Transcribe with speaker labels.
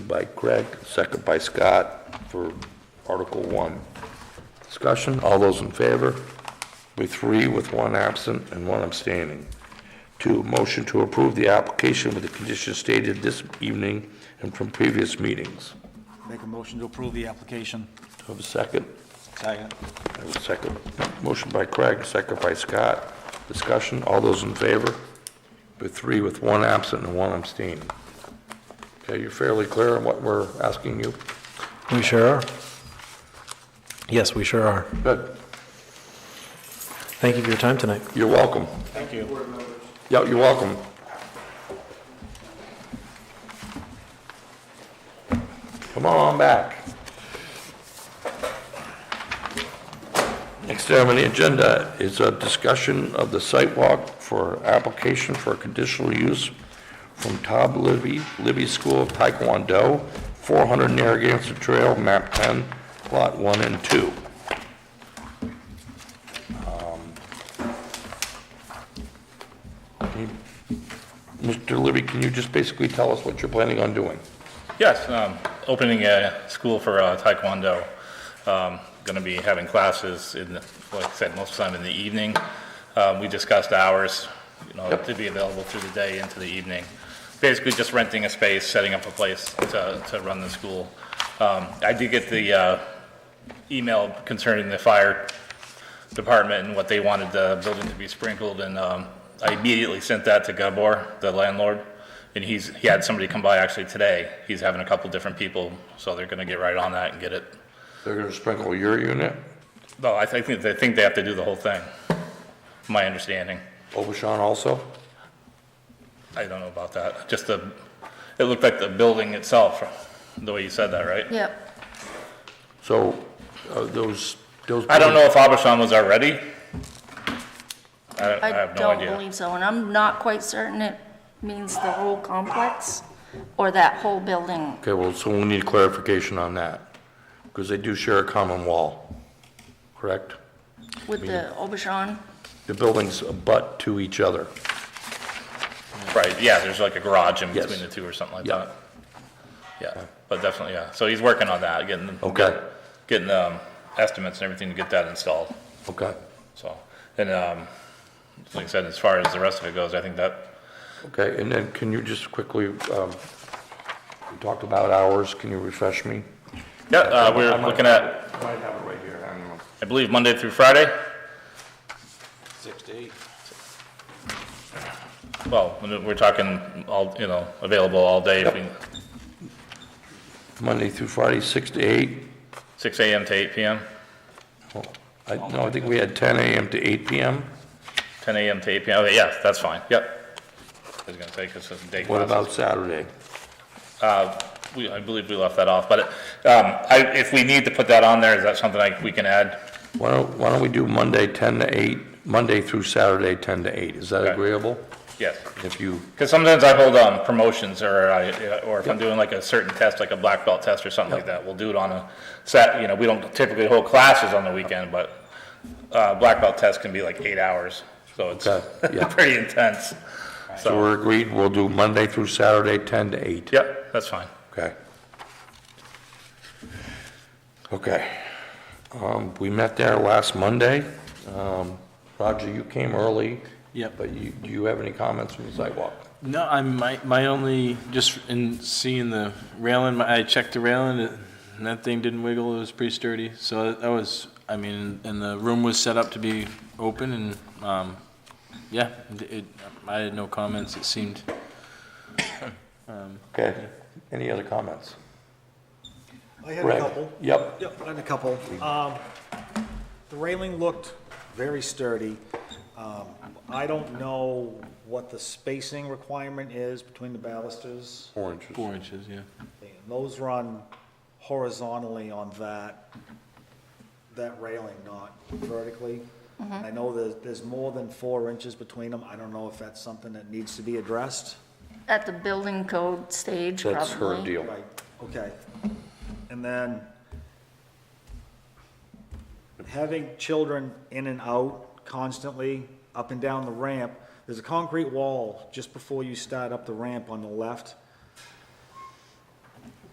Speaker 1: by Craig, second by Scott for Article 1. Discussion, all those in favor? Be three with one absent and one abstaining. Two, motion to approve the application with the conditions stated this evening and from previous meetings.
Speaker 2: Make a motion to approve the application.
Speaker 1: Do I have a second?
Speaker 2: Second.
Speaker 1: I have a second. Motion by Craig, second by Scott. Discussion, all those in favor? Be three with one absent and one abstaining. Okay, you're fairly clear on what we're asking you?
Speaker 3: We sure are. Yes, we sure are.
Speaker 1: Good.
Speaker 3: Thank you for your time tonight.
Speaker 1: You're welcome.
Speaker 2: Thank you.
Speaker 1: Yeah, you're welcome. Come on back. Next item on the agenda is a discussion of the site walk for application for conditional use from Todd Libby, Libby School of Taekwondo, 400 Narragansett Trail, map 10, lot 1 and 2. Mr. Libby, can you just basically tell us what you're planning on doing?
Speaker 4: Yes, um, opening a school for uh, Taekwondo. Going to be having classes in, the- like I said, most of the time in the evening. Um, We discussed hours, you know, to be available through the day into the evening. Basically, just renting a space, setting up a place to to run the school. Um, I did get the uh, email concerning the fire department and what they wanted the building to be sprinkled, and um, I immediately sent that to Gabor, the landlord, and he's, he had somebody come by actually today. He's having a couple different people, so they're gonna get right on that and get it.
Speaker 1: They're going to sprinkle your unit,
Speaker 4: No, I think, I think they have to do the whole thing, my understanding.
Speaker 1: Obashan also?
Speaker 4: I don't know about that, just the, it looked like the building itself, the way you said that, right?
Speaker 5: Yep,
Speaker 1: So uh, those, those.
Speaker 4: I don't know if Abashan was already. I don't- I
Speaker 5: I
Speaker 4: have no
Speaker 5: don't
Speaker 4: idea.
Speaker 5: believe so, and I'm not quite certain it means the whole complex or that whole building.
Speaker 1: Okay, well, so we need clarification on that, because they do share a common wall, correct?
Speaker 5: With the Obashan,
Speaker 1: The buildings abut to each other.
Speaker 4: Right, yeah, there's like a garage in
Speaker 1: Yes.
Speaker 4: between the two or something like
Speaker 1: Yeah.
Speaker 4: that. Yeah, but definitely, yeah, so he's working on that, getting,
Speaker 1: Okay,
Speaker 4: getting, um, estimates and everything to get that installed,
Speaker 1: okay,
Speaker 4: so. And, um, like I said, as far as the rest of it goes, I think that,
Speaker 1: okay. And then can you just quickly, um, we talked about hours, can you refresh me?
Speaker 4: yeah, uh, we're looking at,
Speaker 1: I might have it right here, I don't know.
Speaker 4: I believe, Monday through Friday?
Speaker 2: Six to eight.
Speaker 4: Well, we're talking all, you know, available all day, if we-
Speaker 1: Monday through Friday, 6 to 8?
Speaker 4: six AM to eight PM,
Speaker 1: Well, Oh, I, no, I think we had 10 AM to 8 PM.
Speaker 4: ten AM to eight PM, okay, yeah, that's fine, yep. I was gonna say, 'cause it's day
Speaker 1: What
Speaker 4: classes.
Speaker 1: about Saturday?
Speaker 4: We, I believe we left that off, but, um, I, if we need to put that on there, is that something I, we can add?
Speaker 1: Why don't, why don't we do Monday 10 to 8, Monday through Saturday 10 to 8? Is that
Speaker 4: Okay.
Speaker 1: agreeable?
Speaker 4: Yes,
Speaker 1: If you,
Speaker 4: because sometimes I hold on promotions, or I, uh, or if I'm doing like a certain test, like a black belt test or something like that, we'll do it on a set, you know, we don't typically hold classes on the weekend, but, uh, black belt test can be like eight hours, so it's
Speaker 1: Okay, yeah.
Speaker 4: pretty intense.
Speaker 1: so we're agreed, we'll do Monday through Saturday 10 to 8.
Speaker 4: Yep, that's fine.
Speaker 1: Okay. Okay. Um, we met there last Monday. Um, Roger, you came early.
Speaker 6: Yep.
Speaker 1: But you, do you have any comments from the sidewalk?
Speaker 6: No, I'm, my, my only, just in seeing the railing, my- I checked the railing, it- and that thing didn't wiggle, it was pretty sturdy. So that was, I mean, and the room was set up to be open, and, um, yeah, it- it, I had no comments, it seemed.
Speaker 1: Okay. Any other comments?
Speaker 7: I had a
Speaker 1: Greg?
Speaker 7: couple.
Speaker 1: Yep.
Speaker 7: Yep, I had a couple. Um, The railing looked very sturdy. Um, I don't know what the spacing requirement is between the balusters.
Speaker 1: Four inches.
Speaker 6: Four inches, yeah.
Speaker 7: And Those run horizontally on that, that railing, not vertically.
Speaker 1: Mm-hmm.
Speaker 7: I know there's, there's more than four inches between them. I don't know if that's something that needs to be addressed.
Speaker 5: at the building code stage, probably.
Speaker 1: That's her deal.
Speaker 7: Right, okay. And then having children in and out constantly, up and down the ramp, there's a concrete wall just before you start up the ramp on the left.